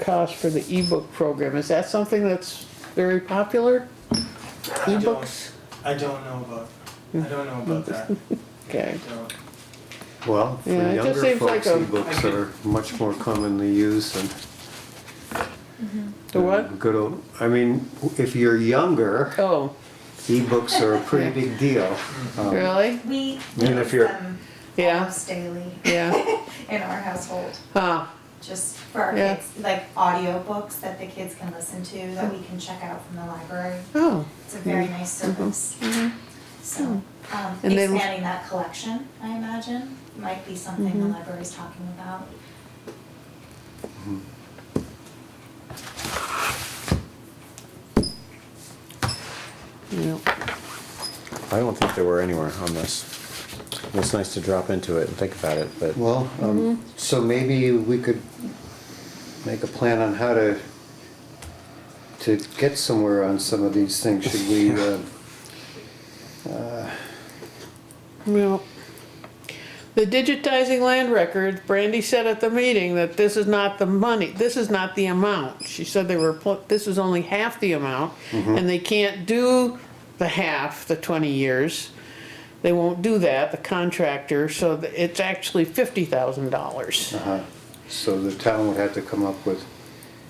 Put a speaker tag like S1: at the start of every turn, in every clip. S1: cost for the ebook program. Is that something that's very popular?
S2: don't-
S1: Ebooks?
S2: I don't know about, I don't know about that.
S1: Okay.
S2: I don't.
S3: Well, for
S1: Yeah, it just
S3: younger
S1: seems
S3: folks,
S1: like a-
S3: ebooks are much more commonly used than.
S1: The what?
S3: than Good old, I mean, if you're younger,
S1: Oh,
S3: ebooks are a pretty big deal. Um,
S1: really?
S4: We
S3: And if
S4: use
S3: you're-
S4: them
S1: Yeah.
S4: almost daily
S1: Yeah.
S4: in our household,
S1: Huh.
S4: just for our
S1: Yeah.
S4: kids, like audiobooks that the kids can listen to that we can check out from the library.
S1: Oh,
S4: It's a very nice service. So, um,
S1: Mm-hmm. And then-
S4: expanding that collection, I imagine, might be something
S1: Mm-hmm.
S4: the library's talking about.
S1: yeah.
S5: I don't think there were anywhere on this. It's nice to drop into it and think about it, but
S3: Well,
S1: Mm-hmm.
S3: um, so maybe we could make a plan on how to, to get somewhere on some of these things. Should we, uh,
S1: Well, the digitizing land records, Brandy said at the meeting that this is not the money, this is not the amount. She said they were, pl- this is only half the amount, and they can't do the half, the twenty years. They won't do that, the contractor, so th- it's actually fifty thousand dollars.
S3: uh, so the town would have to come up with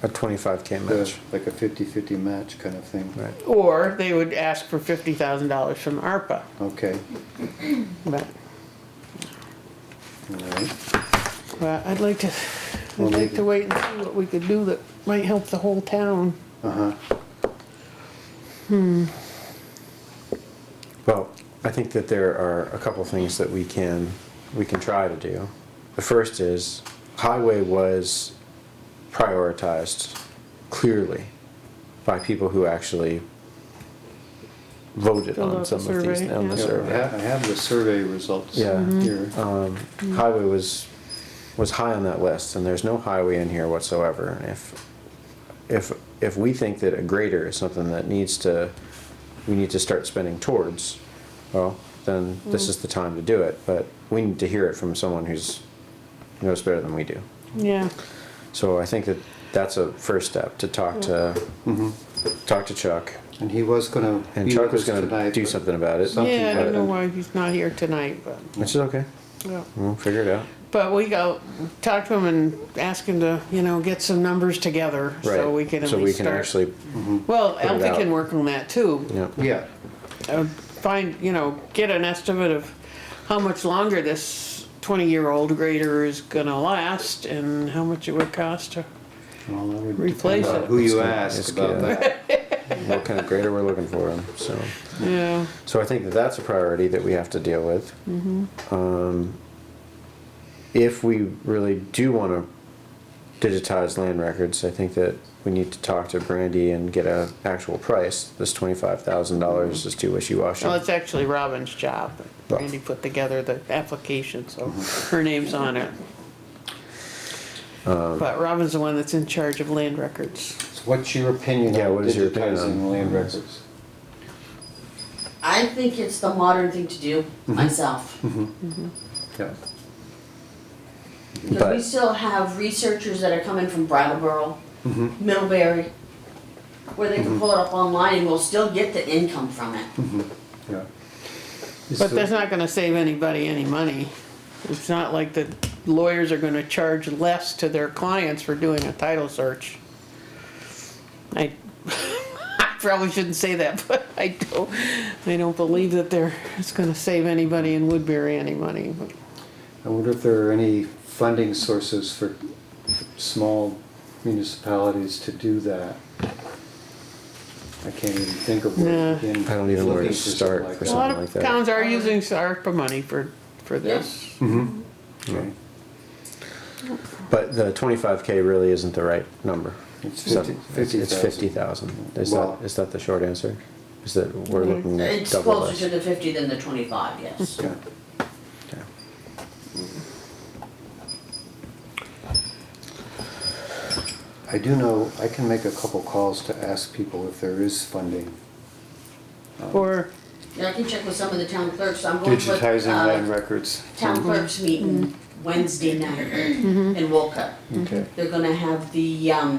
S5: a twenty-five K
S3: the-
S5: match,
S3: like a fifty-fifty match kind of thing.
S5: right?
S1: Or they would ask for fifty thousand dollars from ARPA,
S3: Okay,
S1: but,
S3: all right.
S1: but I'd like to, I'd like to wait and see what we could do that might help the whole town.
S3: Uh-huh.
S5: Well, I think that there are a couple things that we can, we can try to do. The first is highway was prioritized clearly by people who actually voted
S1: Filled
S5: on
S1: out
S5: some
S1: the
S5: of these,
S1: survey, yeah.
S5: on the
S3: Yeah, I
S5: survey.
S3: ha- I have the survey results
S5: Yeah. Mhm.
S1: Mm-hmm.
S3: here.
S5: Um, highway was, was high on that list and there's no highway in here whatsoever. And if, if, if we think that a grader is something that needs to, we need to start spending towards, well, then this
S1: Mm.
S5: is the time to do it, but we need to hear it from someone who's, knows better than we do.
S1: Yeah,
S5: So I think that that's a first step, to talk to, talk to Chuck,
S3: And he was gonna.
S5: and
S3: be
S5: Chuck
S3: with
S5: was
S3: us
S5: gonna
S3: Mm-hmm. tonight,
S5: do
S3: but-
S5: something about it,
S3: Something
S1: yeah, I don't know
S3: happened.
S1: why he's not here tonight, but,
S5: which is okay,
S1: yeah.
S5: we'll figure it out.
S1: But we go, talk to him and ask him to, you know, get some numbers together, so
S5: Right.
S1: we can at
S5: So we
S1: least
S5: can
S1: start.
S5: actually,
S3: Mm-hmm.
S1: Well,
S5: it
S1: Alfie
S5: out.
S1: can work on that too.
S5: yeah,
S3: Yeah,
S1: Uh, Find, you know, get an estimate of how much longer this twenty-year-old grader is gonna last and how much it would cost to,
S3: well, that would
S1: Replace
S3: depend on
S1: it.
S3: who you
S5: It's gonna-
S3: ask
S5: it's
S3: about
S5: gonna-
S3: that.
S5: what kind of grader we're looking for, so.
S1: yeah,
S5: So I think that that's a priority that we have to deal with.
S3: Mm-hmm.
S5: Um, If we really do want to digitize land records, I think that we need to talk to Brandy and get a actual price. This twenty-five thousand dollars is too wishy-washy.
S1: well, it's actually Robin's job. Randy put together the application, so her name's on it. But Robin's the one that's in charge of land records.
S3: So What's your opinion
S5: Yeah,
S3: on
S5: what is your opinion on-
S3: digitizing land records?
S6: I think it's the modern thing to do
S5: Mm-hmm.
S6: myself.
S3: Yeah,
S6: Because we
S5: But-
S6: still have researchers that are coming from Brattleboro,
S5: Mm-hmm.
S6: Middlebury, where they can pull it up online and we'll still get the income from it.
S5: Mm-hmm.
S3: yeah.
S1: But that's not gonna save anybody any money. It's not like the lawyers are gonna charge less to their clients for doing a title search. I, I probably shouldn't say that, but I don't, I don't believe that they're, it's gonna save anybody in Woodbury any money. but-
S3: I wonder if there are any funding sources for small municipalities to do that? I can't even think of
S1: Nah.
S3: where to begin
S5: I don't even know where
S3: looking
S5: to
S3: for something
S5: start
S3: like
S5: for
S3: that.
S1: A lot
S5: Something like
S1: of
S5: that.
S1: towns are using ARPA money for, for this.
S3: Okay.
S5: But the twenty-five K really isn't the right number.
S3: It's
S5: So
S3: 50
S5: It's it's
S3: 50,000.
S5: fifty thousand. Is
S3: Well-
S5: that, is that the short answer? Is that we're
S3: Mm-hmm.
S5: looking at
S6: It's
S5: double
S6: closer to
S5: this?
S6: the fifty than the twenty-five, yes.
S3: Yeah.
S5: Yeah.
S3: I do know, I can make a couple calls to ask people if there is funding. um,
S1: Or,
S6: And I can check with some of the town clerks, I'm going to a,
S3: Digitizing land
S6: uh,
S3: records.
S5: Mm-hmm.
S6: town clerks meeting Wednesday night in Wolcott.
S3: Okay.
S6: They're gonna have the, um,